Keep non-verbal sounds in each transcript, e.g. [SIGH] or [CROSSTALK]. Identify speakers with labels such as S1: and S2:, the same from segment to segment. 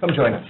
S1: Come join [LAUGHS] us.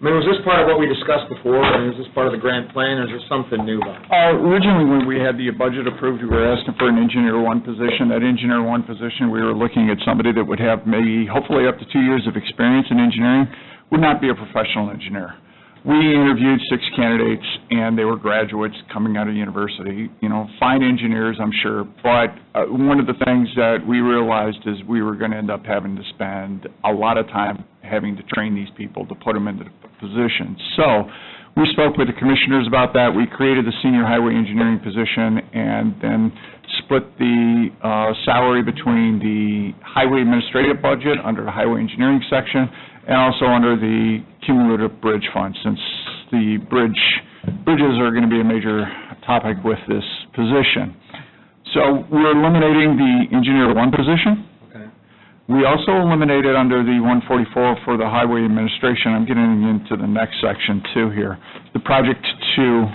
S2: I mean, was this part of what we discussed before, I mean, is this part of the grand plan, or is there something new about it?
S3: Uh, Originally, when we had the budget approved, we were asking for an engineer one position. That engineer one position, we were looking at somebody that would have maybe, hopefully, up to two years of experience in engineering, would not be a professional engineer. We interviewed six candidates, and they were graduates coming out of university, you know, fine engineers, I'm sure, but uh, one of the things that we realized is we were going to end up having to spend a lot of time having to train these people to put them into the position. So, we spoke with the commissioners about that. We created the senior highway engineering position and then split the uh, salary between the highway administrative budget under the highway engineering section and also under the cumulative bridge fund, since the bridge, bridges are going to be a major topic with this position. So we're eliminating the engineer one position. We also eliminated under the 144 for the highway administration, I'm getting into the next section too here, the project two,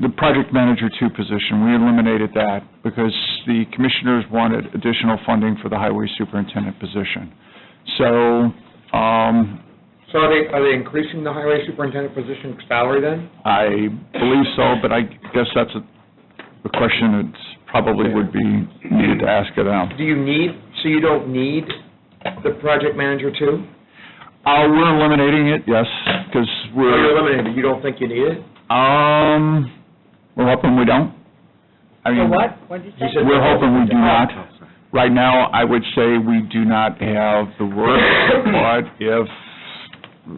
S3: the project manager two position, we eliminated that because the commissioners wanted additional funding for the highway superintendent position. So, um,
S2: So are they, are they increasing the highway superintendent position salary then?
S3: I believe so, but I guess that's a, a question that probably would be needed to ask it out.
S2: Do you need, so you don't need the project manager too?
S3: Uh, we're eliminating it, yes, because
S2: Or
S3: we're.
S2: Oh, you're eliminating, it, you don't think you need it?
S3: Um, we're hoping we don't. I mean,
S4: What did you
S2: You
S4: say?
S2: said-
S3: We're hoping we do not. Right now, I would say we do not have the work, but if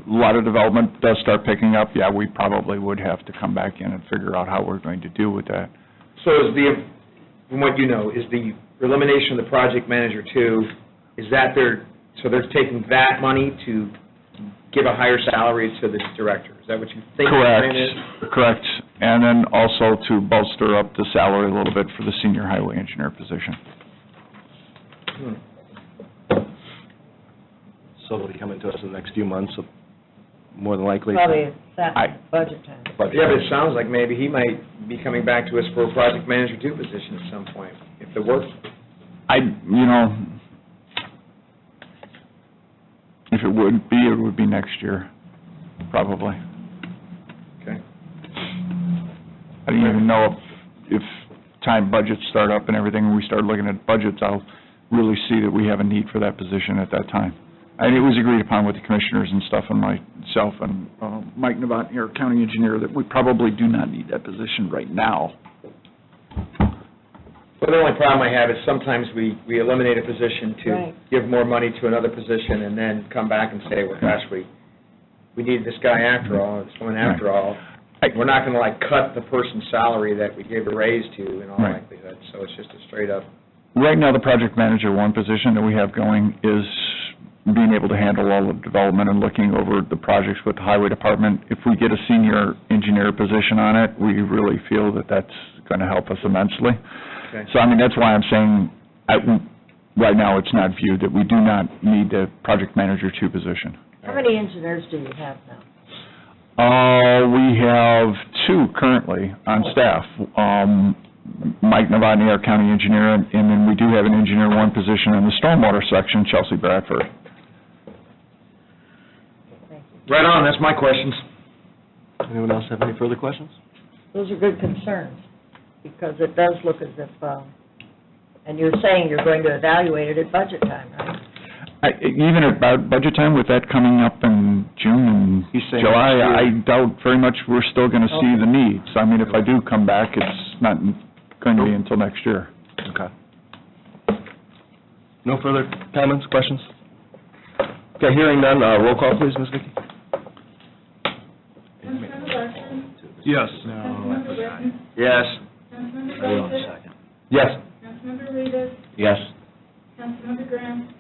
S3: a lot of development does start picking up, yeah, we probably would have to come back in and figure out how we're going to deal with that.
S2: So is the, from what you know, is the elimination of the project manager too, is that they're, so they're taking that money to give a higher salary to the director? Is that what you think the plan is?
S3: Correct, correct. And then also to bolster up the salary a little bit for the senior highway engineer position.
S1: So they'll be coming to us in the next few months, so more than likely.
S4: Probably it's that
S3: I-
S4: budget time.
S1: Budget.
S2: Yeah, but it sounds like maybe he might be coming back to us for a project manager two position at some point, if the work,
S3: I, you know, if it would be, it would be next year, probably.
S2: okay?
S3: I don't even know if, if time budgets start up and everything, when we start looking at budgets, I'll really see that we have a need for that position at that time. And it was agreed upon with the commissioners and stuff, and myself and uh, Mike Navant, our county engineer, that we probably do not need that position right now.
S2: Well, the only problem I have is sometimes we, we eliminate a position to
S4: Right.
S2: give more money to another position and then come back and say, well, gosh, we, we need this guy after all, this woman after all.
S3: I-
S2: We're not gonna like cut the person's salary that we gave a raise to in all
S3: Right.
S2: likelihood, so it's just a straight up.
S3: Right now, the project manager one position that we have going is being able to handle all of development and looking over the projects with the highway department. If we get a senior engineer position on it, we really feel that that's going to help us immensely.
S2: Okay.
S3: So, I mean, that's why I'm saying, I, right now, it's not viewed that we do not need the project manager two position.
S4: How many engineers do you have now?
S3: Uh, we have two currently on staff. Um, Mike Novotny, our county engineer, and then we do have an engineer one position in the stormwater section, Chelsea Bradford.
S2: Right on, that's my questions.
S1: Anyone else have any further questions?
S4: Those are good concerns, because it does look as if, um, and you're saying you're going to evaluate it at budget time, right?
S3: I- Even at about budget time, with that coming up in June and
S1: He's saying
S3: July,
S1: next
S3: I
S1: year.
S3: doubt very much we're still going to see the needs. I mean, if I do come back, it's not going to be until next year.
S1: Okay. No further comments, questions? Okay, hearing none, uh, roll call please, Ms. Vicki.
S5: Councilmember Larson?
S3: Yes.
S5: Councilmember Whitton?
S2: Yes.
S5: Councilmember Gossett?
S1: Yes.
S5: Councilmember Rivas?
S1: Yes.
S5: Councilmember Graham?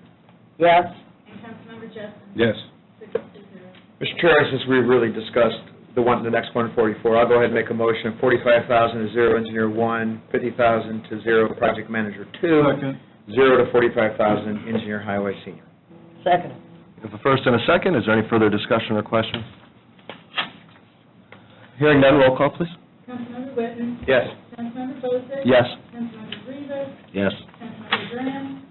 S4: Yes,
S5: And Councilmember Justin?
S1: Yes.
S5: Six to zero.
S2: Mr. Chair, since we really discussed the one, the next one, 44, I'll go ahead and make a motion of 45,000 to zero engineer one, 50,000 to zero project manager two, zero to 45,000 engineer highway senior.
S4: second.
S1: If a first and a second, is there any further discussion or question? Hearing none, roll call please.
S5: Councilmember Whitton?
S2: Yes.
S5: Councilmember Gossett?
S1: Yes.
S5: Councilmember Rivas?
S1: Yes.
S5: Councilmember Graham?